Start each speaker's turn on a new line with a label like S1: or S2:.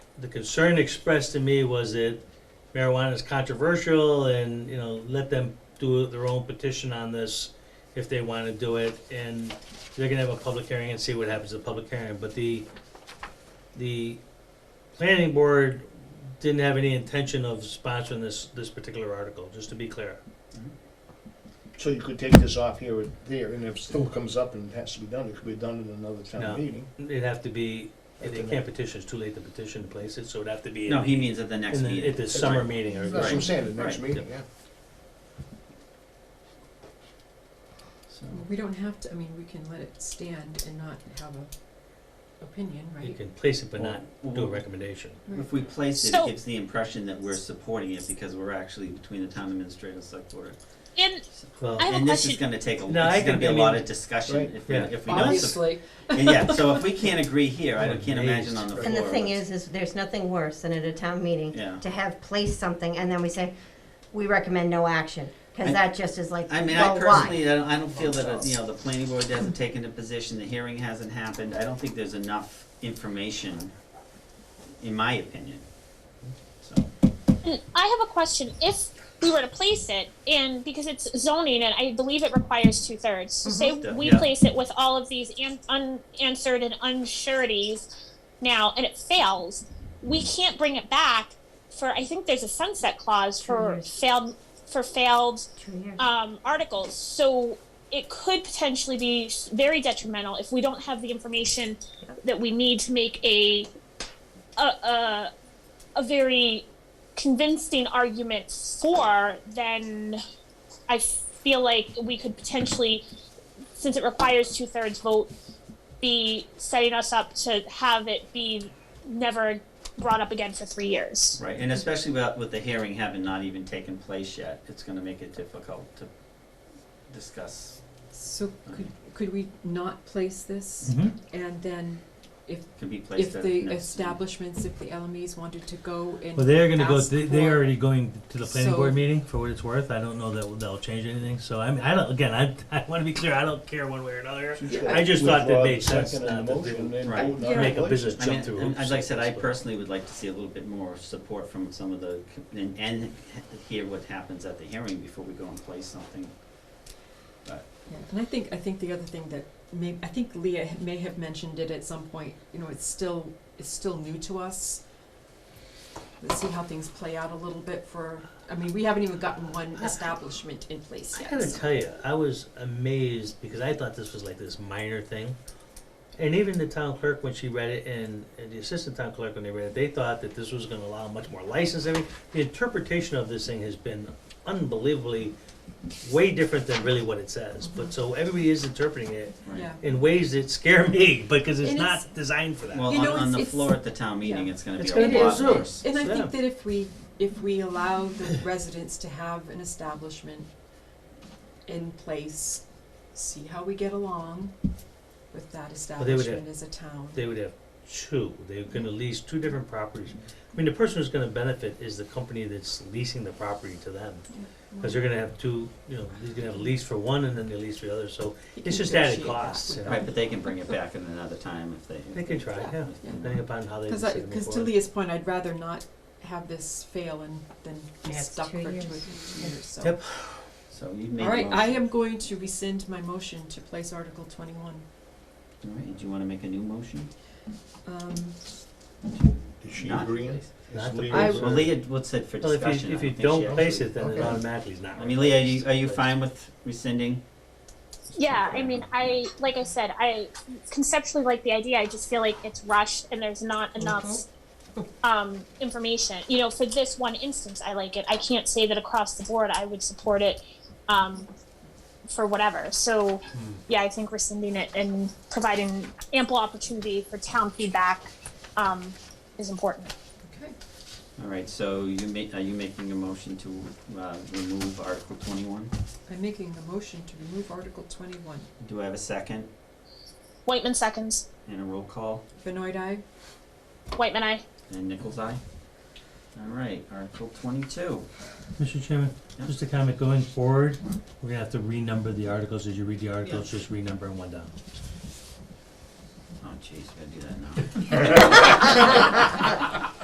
S1: the concern expressed to me was that marijuana is controversial and, you know, let them do their own petition on this if they want to do it, and they're gonna have a public hearing and see what happens at the public hearing, but the, the planning board didn't have any intention of sponsoring this, this particular article, just to be clear.
S2: So you could take this off here or there, and if it still comes up and it has to be done, it could be done in another
S1: No.
S2: town meeting.
S1: It'd have to be, they
S2: At the
S1: can't petition, it's too late to petition to place it, so it'd have to be.
S3: No, he means at the next
S1: in the-
S3: meeting.
S1: At the summer meeting or.
S2: That's what I'm
S3: Right.
S2: saying, the next
S3: Right.
S2: meeting, yeah.
S3: So,
S4: We don't have to, I mean, we can let it stand and not have a opinion,
S1: You
S4: right?
S1: can place it but not
S3: well,
S1: do a recommendation.
S3: If we place it, it
S5: So-
S3: gives the impression that we're supporting it because we're actually between the town administrator and select board.
S5: And
S1: Well,
S5: I have a
S3: And this is
S5: question.
S3: gonna take a,
S1: No, I
S3: it's
S1: think-
S3: gonna be a
S1: I
S3: lot
S1: mean-
S3: of discussion
S2: Right.
S3: if we,
S1: Yeah.
S3: if we don't. sup-
S4: Obviously,
S3: and Yeah, so if we can't agree here, I can't imagine on the floor.
S6: And the thing
S3: what's-
S6: is, is there's nothing worse than at a town meeting
S3: Yeah.
S6: to have placed something and then we say, we recommend no action,
S3: I-
S6: because that just is like,
S3: I mean, I
S6: well, why?
S3: personally, I don't, I don't feel that, uh, you know, the planning board hasn't taken a position, the hearing hasn't happened, I don't think there's enough information, in my opinion. So,
S5: and Mm, I have a question. If we were to place it, and because it's zoning, and I believe it requires two thirds, so say
S3: Mhm.
S5: we
S3: Yeah.
S5: place it with all of these an- unanswered and unsureties now, and it fails, we can't bring it back for. I think there's a sunset clause
S6: Two
S5: for
S6: years.
S5: failed for failed
S6: Two years.
S5: um, articles. So it could potentially be s- very detrimental if we don't have the information that we need to make a a a, a very convincing argument for. Then I feel like we could potentially, since it requires two thirds vote, be setting us up to have it be never brought up again for three years.
S3: right, and especially with, with the hearing having not even taken place yet, it's gonna make it difficult to discuss,
S4: so could, could we not place this? And then if,
S3: can be placed
S4: if
S3: at
S4: the
S3: next
S4: establishments, if the LMEs wanted to go and
S1: Well, they're gonna go,
S4: ask
S1: they- they're
S4: for-
S1: already going to the planning
S4: So-
S1: board meeting, for what it's worth, I don't know that that'll change anything, so I mean, I don't, again, I, I wanna be clear, I don't care one way or another. I just thought that made sense not to do-
S3: Right.
S4: Yeah.
S1: Make a business
S3: I mean,
S1: jump through
S3: and
S1: hoops.
S3: I'd like I said, I
S1: sometimes, but-
S3: personally would like to see a little bit more support from some of the, com- and, and hear what happens at the hearing before we go and place something. But,
S4: Yeah, and I think, I think the other thing that may, I think Leah ha- may have mentioned it at some point, you know, it's still, it's still new to us. Let's see how things play out a little bit for, I mean, we haven't even gotten one establishment in place
S1: I
S4: yet.
S1: gotta
S4: so-
S1: tell you, I was amazed because I thought this was like this minor thing. And even the town clerk, when she read it, and, and the assistant town clerk, when they read it, they thought that this was gonna allow much more licensing. The interpretation of this thing has been unbelievably way different than really what it says. But so everybody is interpreting it
S3: right.
S4: Yeah,
S1: in ways that scare me because it's
S4: And it's-
S1: not designed for that.
S3: Well,
S4: You
S3: on,
S4: know,
S3: on the
S4: it's-
S3: floor at the town meeting,
S4: yeah.
S3: it's gonna be
S1: It's
S3: a
S1: gonna
S4: be
S3: lot
S4: a
S1: zoo.
S3: worse.
S4: and I
S1: Yeah.
S4: think that if we, if we allow the residents to have an establishment in place, see how we get along with that
S1: they would have-
S4: establishment as a town.
S1: they would have two. They're gonna lease two different properties. I mean, the person who's gonna benefit is the company that's leasing the property to them. Cause they're gonna have two, you know, they're gonna have a lease for one and then they lease for the other, so
S4: You
S1: it's
S4: can
S1: just added
S4: negotiate that
S1: costs, you
S4: with
S1: know.
S3: Right, but they can bring it back at another time if they.
S1: They can try, yeah,
S3: if they-
S4: Yeah.
S1: depending upon how they
S4: Because
S1: decide to move
S4: because to
S1: forward.
S4: Leah's point, I'd rather not have this fail and then be
S6: Yeah, it's
S4: stuck for
S6: two
S4: two
S6: years.
S4: years, so.
S1: Yep.
S3: So you made a
S4: All right,
S3: motion.
S4: I am going to rescind my motion to place Article twenty-one.
S3: All right, do you wanna make a new motion?
S4: Um,
S2: Is she
S3: Not
S2: agreeing?
S3: place.
S1: Not
S2: Is
S1: the
S2: Leah
S4: I-
S2: agreeing?
S3: Well, Leah, what's said for
S1: Well, if you,
S3: discussion? I
S1: if you
S3: think she
S1: don't place
S3: actually-
S1: it, then it
S2: Okay.
S1: automatically is not.
S3: I mean, Leah, are you, are you fine with rescinding?
S5: Yeah, I mean, I like I said, I conceptually like the idea. I just feel like it's rushed and there's not enough um, information. You know, for this one instance, I like it. I can't say that across the board I would support it um, for whatever. So, yeah, I think rescinding it and providing ample opportunity for town feedback um, is important.
S4: okay,
S3: All right, so you ma- are you making a motion to, uh, remove Article twenty-one?
S4: I'm making a motion to remove Article twenty-one.
S3: Do I have a second
S5: Whiteman seconds.
S3: and a roll call
S4: Benoit, aye?
S5: Whiteman, I.
S3: and Nichols eye? All right, Article twenty-two.
S1: Mr. Chairman,
S3: Yeah.
S1: just a comment, going forward, we're gonna have to renumber the articles, as you read the
S4: articles,
S1: just renumber them one down.
S3: Oh jeez, we gotta do that now.